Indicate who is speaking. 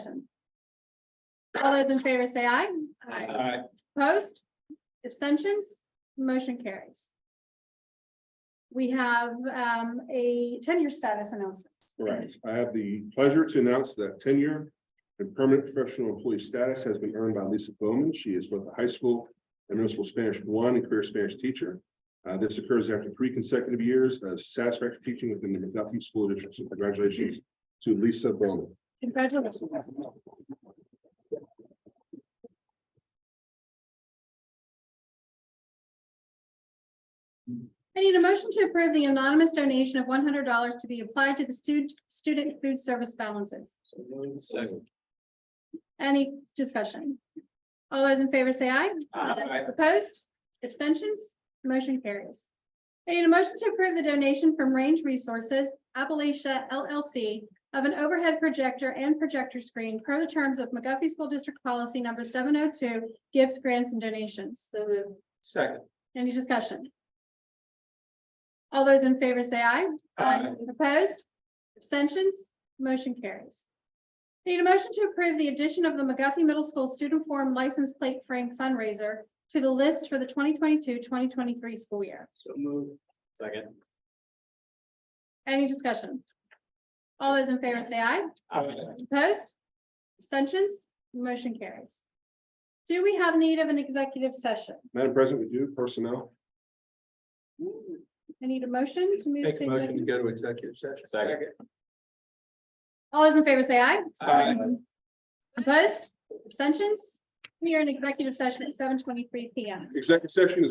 Speaker 1: All those in favor say aye.
Speaker 2: Aye.
Speaker 1: Opposed? Abstentions? Motion carries. We have um, a tenure status announcement.
Speaker 3: Right, I have the pleasure to announce that tenure and permanent professional employee status has been earned by Lisa Bowman. She is both a high school and middle school Spanish one and career Spanish teacher. Uh, this occurs after three consecutive years of satisfactory teaching within the McDuffie School District. So Congratulations to Lisa Bowman.
Speaker 1: Congratulations. I need a motion to approve the anonymous donation of one hundred dollars to be applied to the student, student food service balances.
Speaker 2: Second.
Speaker 1: Any discussion? All those in favor say aye.
Speaker 2: Aye.
Speaker 1: Opposed? Abstentions? Motion carries. I need a motion to approve the donation from Range Resources Appalachia LLC of an overhead projector and projector screen per the terms of McGuffey School District Policy Number seven oh two, gifts, grants, and donations. So moved.
Speaker 2: Second.
Speaker 1: Any discussion? All those in favor say aye.
Speaker 2: Aye.
Speaker 1: Opposed? Abstentions? Motion carries. Need a motion to approve the addition of the McGuffey Middle School Student Forum License Plate Frame fundraiser to the list for the 2022-2023 school year.
Speaker 2: So move. Second.
Speaker 1: Any discussion? All those in favor say aye.
Speaker 2: Aye.
Speaker 1: Opposed? Abstentions? Motion carries. Do we have need of an executive session?
Speaker 3: Madam President, we do personnel.
Speaker 1: I need a motion to move.
Speaker 2: Make a
Speaker 1: to
Speaker 2: motion to
Speaker 1: executive-
Speaker 2: go to executive session. Second.
Speaker 1: All those in favor say aye.
Speaker 2: Aye.
Speaker 1: Opposed? Abstentions? We are in executive session at seven twenty-three P M.
Speaker 3: Executive session is